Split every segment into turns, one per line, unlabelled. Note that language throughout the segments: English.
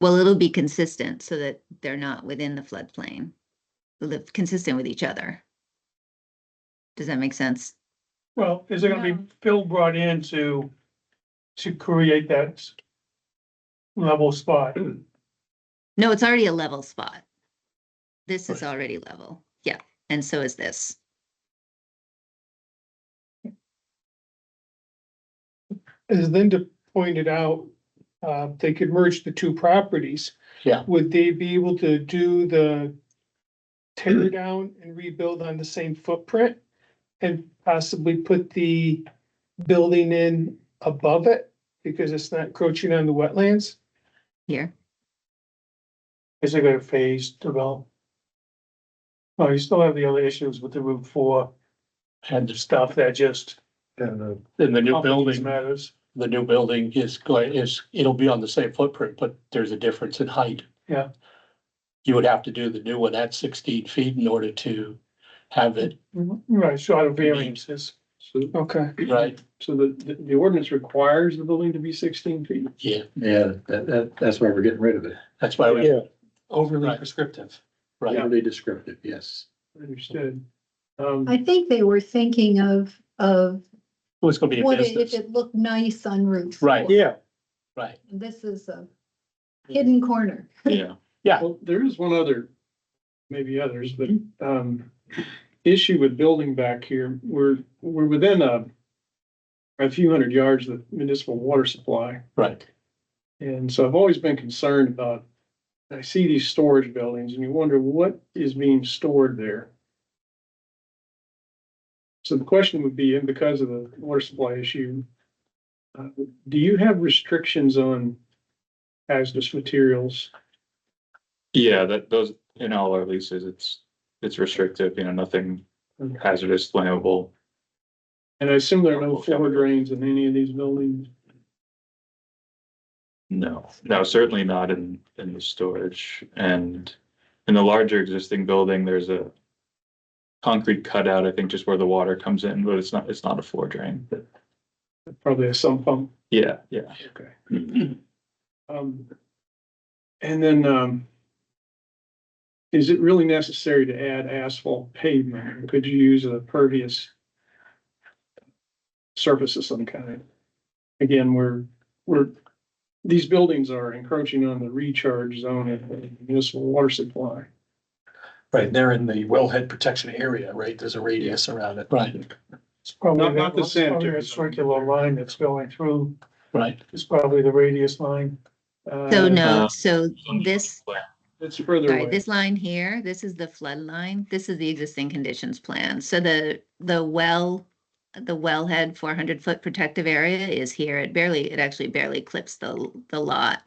Well, it'll be consistent so that they're not within the floodplain. They'll live consistent with each other. Does that make sense?
Well, is there gonna be
No.
fill brought in to, to create that level spot?
No, it's already a level spot. This is already level. Yeah, and so is this.
as Linda pointed out, uh, they could merge the two properties.
Yeah.
Would they be able to do the tear down and rebuild on the same footprint? And possibly put the building in above it because it's not encroaching on the wetlands?
Here,
Is it gonna phase develop? Well, you still have the other issues with the Route Four
And the stuff,
stuff that just.
And uh, the
and the new building,
Matters,
the new building is going, is, it'll be on the same footprint, but there's a difference in height.
Yeah.
You would have to do the new one at sixteen feet in order to have it,
right, short of variances.
so,
Okay.
right?
so the, the- the ordinance requires the building to be sixteen feet?
Yeah,
Yeah, that, that, that's why we're getting rid of it.
that's why we,
Overly
Right.
prescriptive.
right,
Overly descriptive, yes.
Understood. Um,
I think they were thinking of, of
who's gonna be a
what it- if
business,
it looked nice on Route.
Right.
four.
yeah,
right? Mm-hmm.
This is a hidden corner.
Yeah.
well, there is one other, maybe others, but, um, issue with building back here, we're, we're within a a few hundred yards of the municipal water supply.
Right,
And so I've always been concerned about, I see these storage buildings and you wonder what is being stored there. So the question would be, and because of the water supply issue, uh, do you have restrictions on hazardous materials?
Yeah, that those, in all our leases, it's, it's restrictive, you know, nothing hazardous, flammable.
And I assume there are no floor drains in any of these buildings.
No, no, certainly not in, in the storage and in the larger existing building, there's a concrete cutout, I think, just where the water comes in, but it's not, it's not a floor drain.
Probably a sump pump.
Yeah, yeah.
Okay. Um, and then, um, is it really necessary to add asphalt pavement? Could you use a pervious surface of some kind? Again, we're, we're, these buildings are encroaching on the recharge zone of the municipal water supply.
Right, they're in the wellhead protection area, right? There's a radius around it.
right,
It's probably
Not- not the
that- it's probably
sanitary.
that Circular line that's going through
right.
is probably the radius line.
so
Uh,
no,
uh,
so this
It's further
Sorry,
away.
this line here, this is the flood line. This is the existing conditions plan. So the, the well, the wellhead four hundred foot protective area is here. It barely, it actually barely clips the, the lot.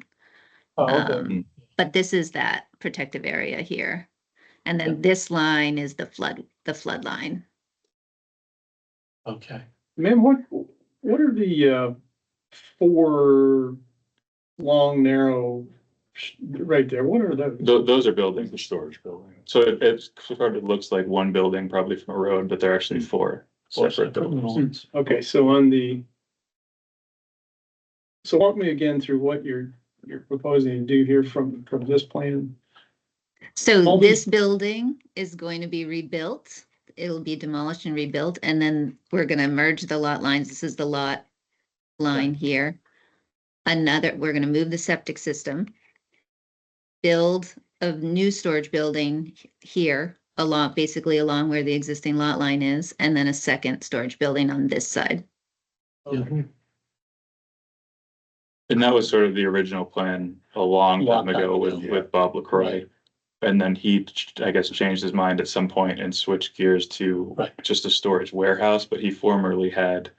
Oh, okay.
Um,
mm.
But this is that protective area here. And then this line is the flood, the flood line.
Okay,
Ma'am, what, what are the, uh, four long, narrow, sh- right there, what are those?
Tho- those are buildings. The storage building. So it, it sort of looks like one building probably from a road, but they're actually four
Four
separate buildings.
buildings.
Okay, so on the. So walk me again through what you're, you're proposing to do here from, from this plan.
So
All
this building is going to be rebuilt. It'll be demolished and rebuilt, and then we're gonna merge the lot lines. This is the lot line here. Another, we're gonna move the septic system. Build a new storage building h- here, along, basically along where the existing lot line is, and then a second storage building on this side.
And that was sort of the original plan a long
Long
time
time
ago with,
ago, yeah.
with Bob LaCroix.
Right.
And then he, ch- I guess, changed his mind at some point and switched gears to
Right.
just a storage warehouse, but he formerly had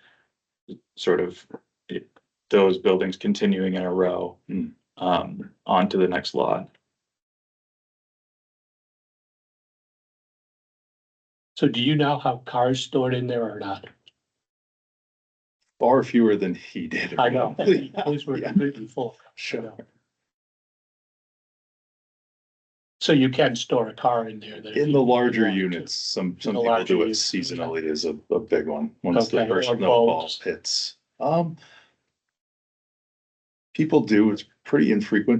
sort of it- those buildings continuing in a row
Hmm.
um, onto the next lot.
so do you know how cars stored in there or not?
Far fewer than he did.
I know, those were completely full.
Sure.
So you can store a car in there. that-
In the larger
Yeah.
units, some, some
the
people
larger
do it
units, yeah.
seasonally is a, a big one, once the
Okay,
first
or
snowball
bulbs.
hits. Um. People do, it's pretty infrequent,